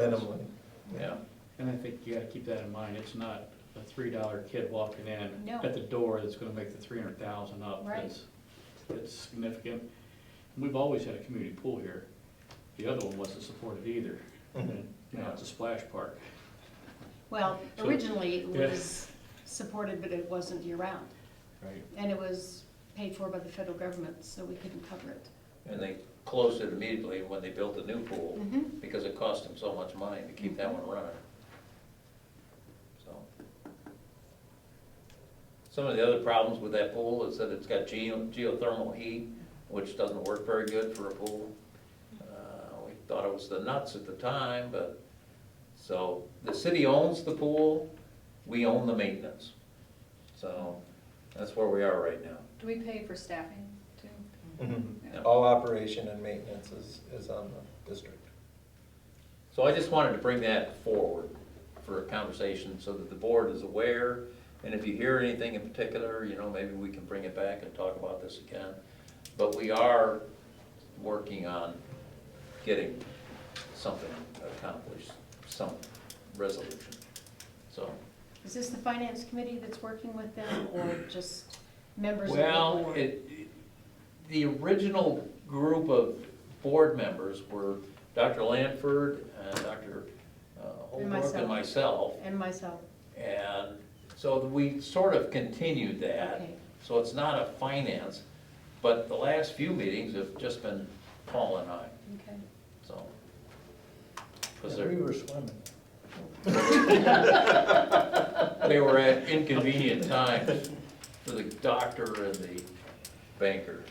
minimally. Yeah, And I think you gotta keep that in mind, it's not a three dollar kid walking in No. at the door that's gonna make the three hundred thousand up. Right. It's- It's significant. And We've always had a community pool here. The other one wasn't supported either. Mhm. And Now it's a splash park. Well, So- originally it Yeah. was supported, but it wasn't year-round. Right. And it was paid for by the federal government, so we couldn't cover it. and they closed it immediately when they built the new pool, Mhm. because it cost them so much money to keep that one running. So. Some of the other problems with that pool is that it's got geo- geothermal heat, which doesn't work very good for a pool. Uh, We thought it was the nuts at the time, but, so, the city owns the pool, we own the maintenance. So, that's where we are right now. Do we pay for staffing too? Mhm. All operation and maintenance is, is on the district. So I just wanted to bring that forward for a conversation so that the board is aware. And if you hear anything in particular, you know, maybe we can bring it back and talk about this again. But we are working on getting something accomplished, some resolution. So, Is this the finance committee that's working with them or just members of the well, board? it, the original group of board members were Dr. Lanford and Dr. uh, Holbrook and myself. myself. And myself, And so we sort of continued that, okay. so it's not a finance, but the last few meetings have just been Paul and I, Okay. so. Yeah, 'Cause We they're- were swimming. They were at inconvenient times for the doctor and the banker.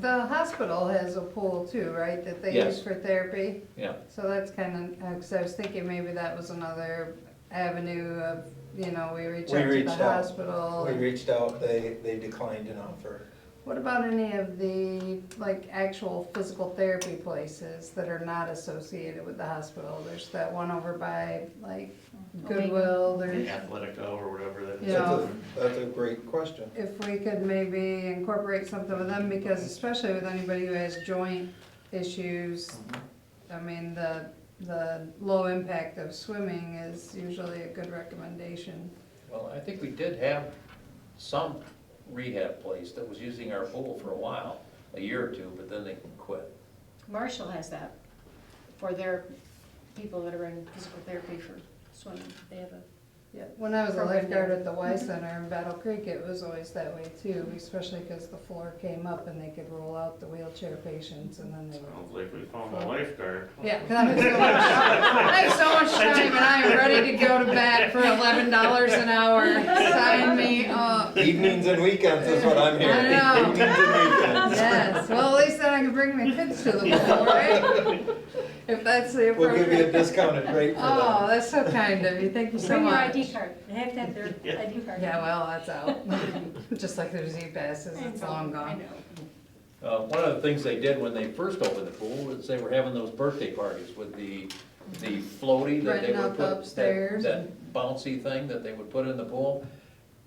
The hospital has a pool too, right, that they Yes. use for therapy? Yeah. So that's kind of, because I was thinking maybe that was another avenue of, you know, we reach We out to the reached out. hospital. We reached out, they, they declined an offer. What about any of the, like, actual physical therapy places that are not associated with the hospital? There's that one over by, like, Goodwill, there's, Athletico or whatever that you That's know. a, that's a great question. if we could maybe incorporate something with them, because especially with anybody who has joint issues, I mean, the, the low impact of swimming is usually a good recommendation. Well, I think we did have some rehab place that was using our pool for a while, a year or two, but then they quit. Marshall has that for their people that are in physical therapy for swimming. They have a, Yeah, when I was a Program lifeguard there. at the Y Center in Battle Creek, it was always that way too, especially because the floor came up and they could roll out the wheelchair patients and then they were. Sounds like we found a lifeguard. Yeah, 'cause I have so much, Oh. I have so much time and I am ready to go to bed for eleven dollars an hour. Sign me up. Evenings and weekends is what I'm hearing. I know. Evenings and weekends. Yes, well, at least then I can bring my kids to the pool, right? If that's the We'll give you a appropriate. discounted rate for that. Oh, that's so kind of you, thank you so bring your much. ID card. They have to have their Yeah. ID card. Yeah, well, that's out, just like there's E-passes, it's long I gone. know. Uh, One of the things they did when they first opened the pool was they were having those birthday parties with the, the floaty that they would Renting out the put. that- upstairs. That bouncy thing that they would put in the pool.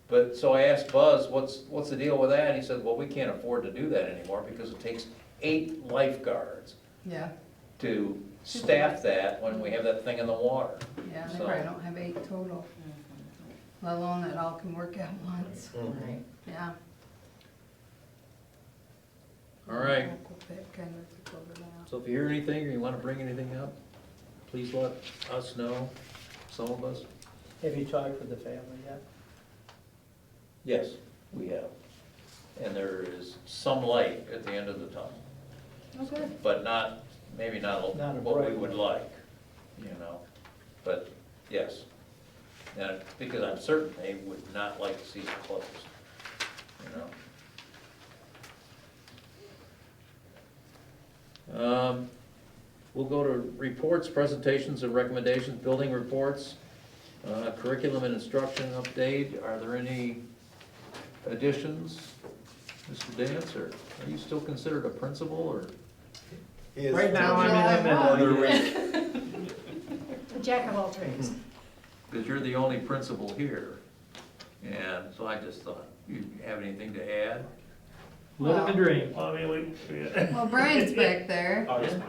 But, so I asked Buzz, what's, what's the deal with that? And he said, well, we can't afford to do that anymore because it takes eight lifeguards Yeah, to staff that when we have that thing in the water. yeah, they So- probably don't have eight total, let alone that all can work at once, Mhm. yeah. All right. That kind of took over now. So if you hear anything or you want to bring anything up, please let us know, some of us. Have you talked with the family yet? Yes, we have. And there is some light at the end of the tunnel. Oh, Okay. but not, maybe not Not a what we bright would one. like, you know, but, yes. And because I'm certain they would not like to see it closed, you know. Um, We'll go to reports, presentations, and recommendations, building reports, uh, curriculum and instruction update, are there any additions? Mr. Dance, or are you still considered a principal, or? He is- Right now, I'm in the middle of the week. A Jack of all trades. because you're the only principal here. And so I just thought, you have anything to add? Living the dream. Well, I mean, we, yeah. Well, Brian's back there. Oh, this one.